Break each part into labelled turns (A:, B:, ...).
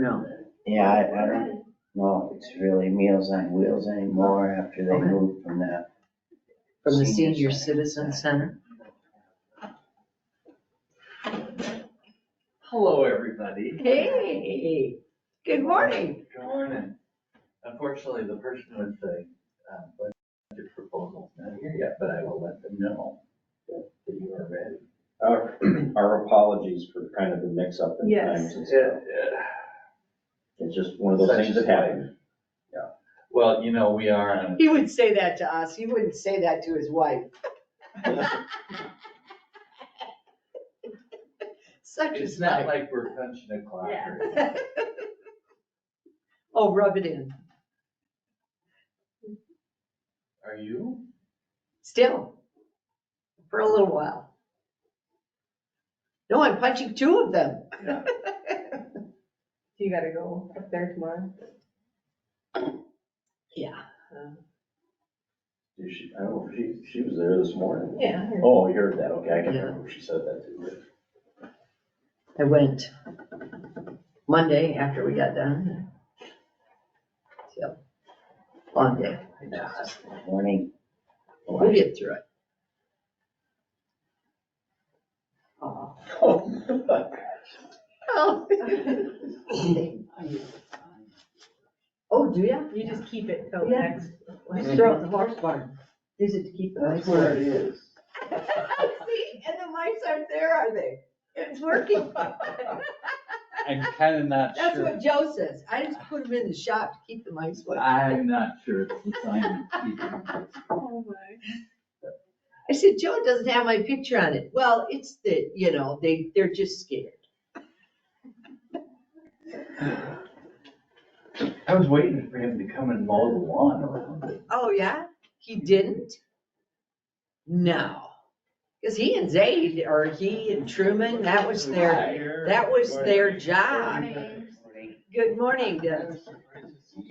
A: No.
B: Yeah, I, I don't know if it's really Meals on Wheels anymore after they
A: Okay.
B: moved from that.
A: From the senior citizen center?
C: Hello, everybody.
A: Hey, good morning.
C: Good morning. Unfortunately, the person with the uh, budget proposal's not here yet, but I will let them know that you are ready.
D: Our our apologies for kind of the mix-up in
A: Yes.
D: times and stuff. It's just one of those
C: Such
D: things
C: is
D: that happen.
C: Well, you know, we are on,
A: He would say that to us. He wouldn't say that to his wife. Such
C: it's
A: is life.
C: not like we're punching a clock or anything.
A: Oh, rub it in.
C: Are you?
A: Still. For a little while. No, I'm punching two of them.
C: Yeah.
E: You gotta go up there tomorrow.
A: Yeah.
D: Did she- I don't know, she, she was there this morning.
E: Yeah.
D: Oh, you heard that, okay, I can remember she said that too.
A: I went Monday after we got done. So, long day.
B: Morning,
A: We'll get through it. Oh. Oh, Oh, do ya?
E: You just keep it till
A: Yeah.
E: next.
A: Just throw it in the horse barn. Use it to keep the mice away.
C: it is.
A: See, and the mice aren't there, are they? It's working.
F: I'm kind of not
A: That's
F: sure.
A: what Joe says. I just put them in the shop to keep the mice away.
F: I'm not sure it's the sign. either.
E: Oh my.
A: I said, Joe doesn't have my picture on it. Well, it's the, you know, they, they're just scared.
C: I was waiting for him to come and mow the lawn or something.
A: Oh, yeah? He didn't? No. Because he and Zaid, or he and Truman, that was their, that was their job. Good morning, Dennis.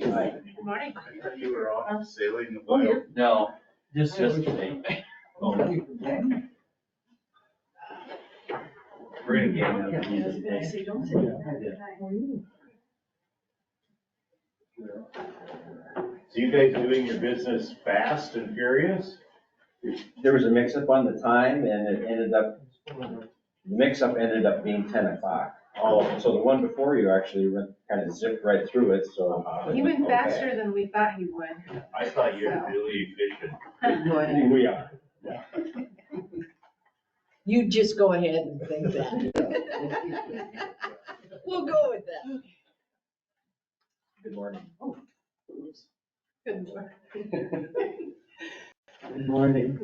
D: Right.
E: Good morning.
G: You were off sailing the wild
F: No, just yesterday.
C: We're gonna get him.
G: So you guys doing your business fast and furious?
D: There was a mix-up on the time and it ended up, the mix-up ended up being ten o'clock. Oh, so the one before you actually went, kind of zipped right through it, so.
G: Uh-huh.
E: He went
D: Okay.
E: faster than we thought he would.
G: I thought you were really efficient.
A: Good morning.
D: We are.
A: You just go ahead and think that. We'll go with that.
D: Good morning.
E: Good work.
H: Good morning.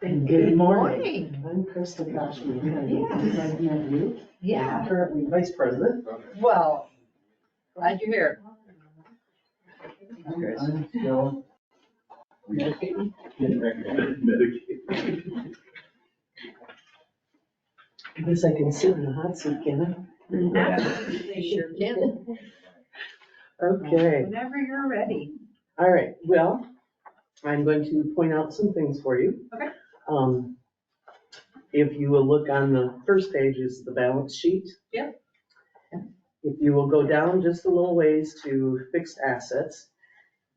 E: Thank
H: Good
A: morning.
H: I'm Kristen Bashmi.
A: Yes.
H: I've met you.
A: Yeah,
H: Currently vice president.
A: well, glad you're here.
H: I'm I'm still.
D: Didn't recognize.
H: I guess I can sit in the hot seat, can
E: Absolutely.
A: Sure can.
H: I? Okay,
E: Whenever you're ready.
H: all right, well, I'm going to point out some things for you.
E: Okay.
H: Um, if you will look on the first page is the balance sheet.
E: Yep.
H: If you will go down just a little ways to fixed assets,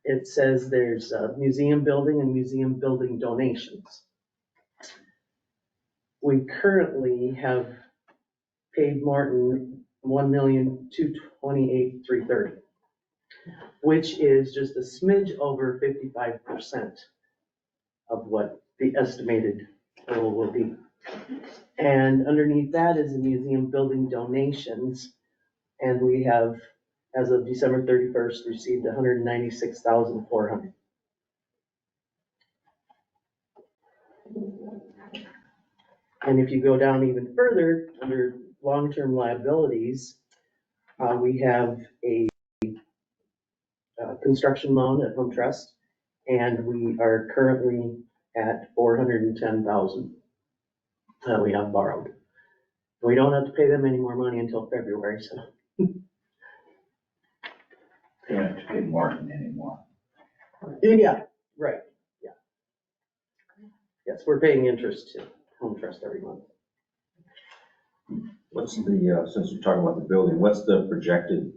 H: it says there's uh, museum building and museum building donations. We currently have paid Martin one million, two twenty-eight, three thirty, which is just a smidge over fifty-five percent of what the estimated total will be. And underneath that is the museum building donations. And we have, as of December thirty-first, received hundred and ninety-six thousand, four hundred. And if you go down even further, under long-term liabilities, uh, we have a uh, construction loan at Home Trust, and we are currently at four hundred and ten thousand that we have borrowed. We don't have to pay them any more money until February, so.
C: They don't have to pay Martin anymore.
H: Yeah, right, yeah. Yes, we're paying interest to Home Trust every month.
D: What's the, uh, since we're talking about the building, what's the projected